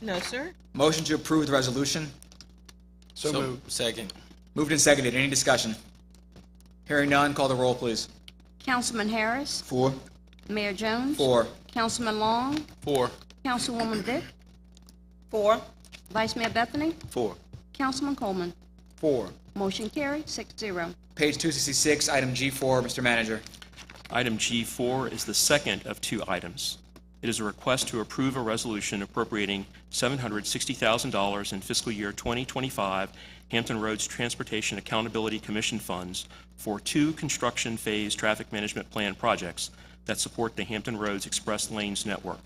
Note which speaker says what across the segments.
Speaker 1: No, sir.
Speaker 2: Motion to approve the resolution.
Speaker 3: So moved.
Speaker 4: Second.
Speaker 2: Moved and seconded. Any discussion? Hearing none, call the roll, please.
Speaker 5: Councilman Harris,
Speaker 2: Four.
Speaker 5: Mayor Jones.
Speaker 2: Four.
Speaker 5: Councilman Long,
Speaker 4: Four.
Speaker 5: Councilwoman Vick,
Speaker 1: Four.
Speaker 5: Vice Mayor Bethany,
Speaker 4: Four.
Speaker 5: Councilman Coleman.
Speaker 3: Four.
Speaker 5: Motion carried, six zero.
Speaker 2: Page 266, item G4, Mr. Manager.
Speaker 6: Item G4 is the second of two items. It is a request to approve a resolution appropriating $760,000 in fiscal year 2025 Hampton Roads Transportation Accountability Commission funds for two construction phase traffic management plan projects that support the Hampton Roads Express Lanes Network.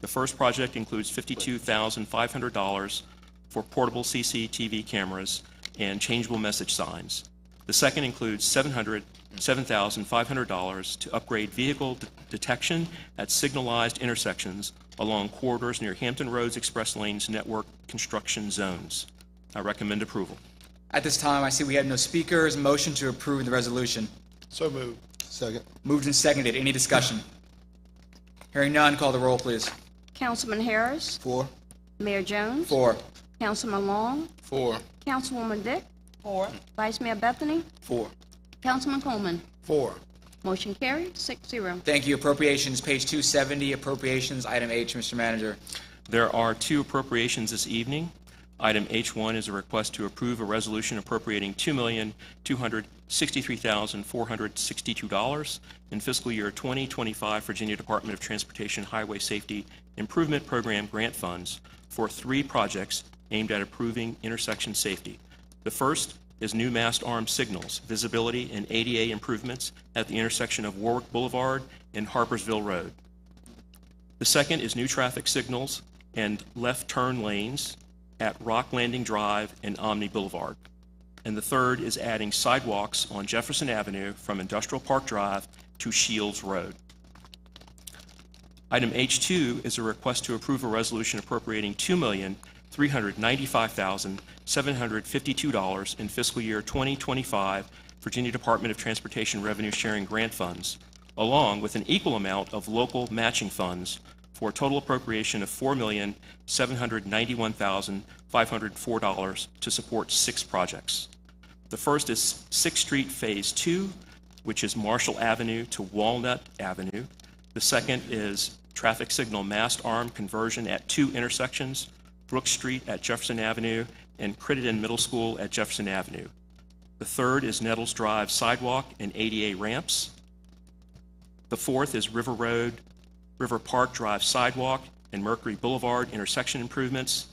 Speaker 6: The first project includes $52,500 for portable CCTV cameras and changeable message signs. The second includes $700 $7,500 to upgrade vehicle de- detection at signalized intersections along corridors near Hampton Roads Express Lanes Network construction zones. I recommend approval.
Speaker 2: At this time, I see we have no speakers. Motion to approve the resolution.
Speaker 3: So moved.
Speaker 4: Second.
Speaker 2: Moved and seconded. Any discussion? Hearing none, call the roll, please.
Speaker 5: Councilman Harris,
Speaker 4: Four.
Speaker 5: Mayor Jones.
Speaker 2: Four.
Speaker 5: Councilman Long,
Speaker 4: Four.
Speaker 5: Councilwoman Vick,
Speaker 1: Four.
Speaker 5: Vice Mayor Bethany,
Speaker 4: Four.
Speaker 5: Councilman Coleman.
Speaker 3: Four.
Speaker 5: Motion carried, six zero.
Speaker 2: Thank you. Appropriations, page 270, appropriations, item H, Mr. Manager.
Speaker 6: There are two appropriations this evening. Item H1 is a request to approve a resolution appropriating $2,263,462 in fiscal year 2025 Virginia Department of Transportation Highway Safety Improvement Program grant funds for three projects aimed at improving intersection safety. The first is new mast arm signals, visibility, and ADA improvements at the intersection of Warwick Boulevard and Harpersville Road. The second is new traffic signals and left turn lanes at Rock Landing Drive and Omni Boulevard. And the third is adding sidewalks on Jefferson Avenue from Industrial Park Drive to Shields Road. Item H2 is a request to approve a resolution appropriating $2,395,752 in fiscal year 2025 Virginia Department of Transportation Revenue Sharing Grant Funds, along with an equal amount of local matching funds for a total appropriation of $4,791,504 to support six projects. The first is Sixth Street Phase Two, which is Marshall Avenue to Walnut Avenue. The second is traffic signal mast arm conversion at two intersections, Brook Street at Jefferson Avenue and Crittenden Middle School at Jefferson Avenue. The third is Nettles Drive sidewalk and ADA ramps. The fourth is River Road, River Park Drive sidewalk and Mercury Boulevard intersection improvements.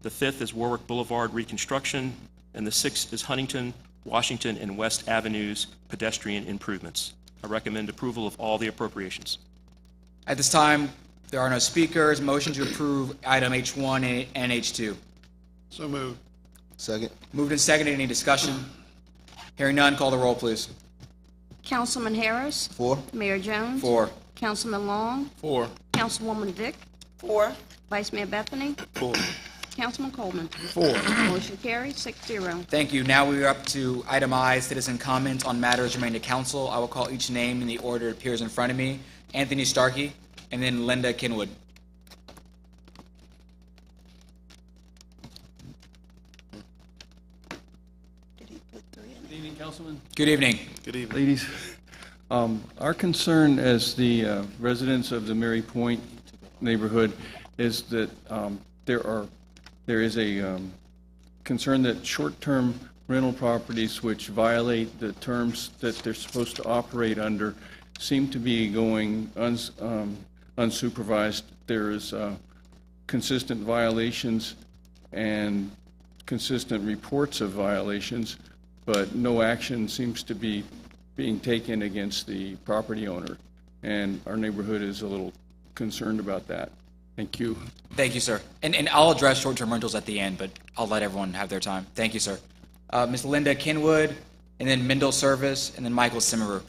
Speaker 6: The fifth is Warwick Boulevard reconstruction, and the sixth is Huntington, Washington, and West Avenues pedestrian improvements. I recommend approval of all the appropriations.
Speaker 2: At this time, there are no speakers. Motion to approve item H1 and H2.
Speaker 3: So moved.
Speaker 4: Second.
Speaker 2: Moved and seconded. Any discussion? Hearing none, call the roll, please.
Speaker 5: Councilman Harris,
Speaker 4: Four.
Speaker 5: Mayor Jones.
Speaker 2: Four.
Speaker 5: Councilman Long,
Speaker 4: Four.
Speaker 5: Councilwoman Vick,
Speaker 1: Four.
Speaker 5: Vice Mayor Bethany,
Speaker 4: Four.
Speaker 5: Councilman Coleman.
Speaker 3: Four.
Speaker 5: Motion carried, six zero.
Speaker 2: Thank you. Now we are up to item I, citizen comments on matters remaining to council. I will call each name in the order it appears in front of me. Anthony Starkey, and then Linda Kinwood.
Speaker 7: Good evening, Councilman.
Speaker 2: Good evening.
Speaker 3: Good evening.
Speaker 7: Ladies. Um, Our concern as the uh, residents of the Mary Point neighborhood is that um, there are, there is a um, concern that short-term rental properties which violate the terms that they're supposed to operate under seem to be going uns- um, unsupervised. There is uh, consistent violations and consistent reports of violations, but no action seems to be being taken against the property owner. And our neighborhood is a little concerned about that. Thank you.
Speaker 2: Thank you, sir. And, and I'll address short-term rentals at the end, but I'll let everyone have their time. Thank you, sir. Uh, Ms. Linda Kinwood, and then Mendel Service, and then Michael Simmerer.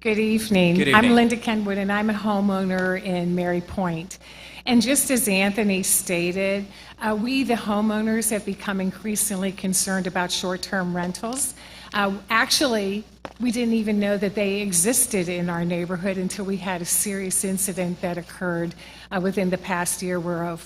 Speaker 8: Good evening.
Speaker 2: Good
Speaker 8: I'm
Speaker 2: evening.
Speaker 8: Linda Kenwood, and I'm a homeowner in Mary Point. And just as Anthony stated, uh, we, the homeowners, have become increasingly concerned about short-term rentals. Uh, Actually, we didn't even know that they existed in our neighborhood until we had a serious incident that occurred uh, within the past year where a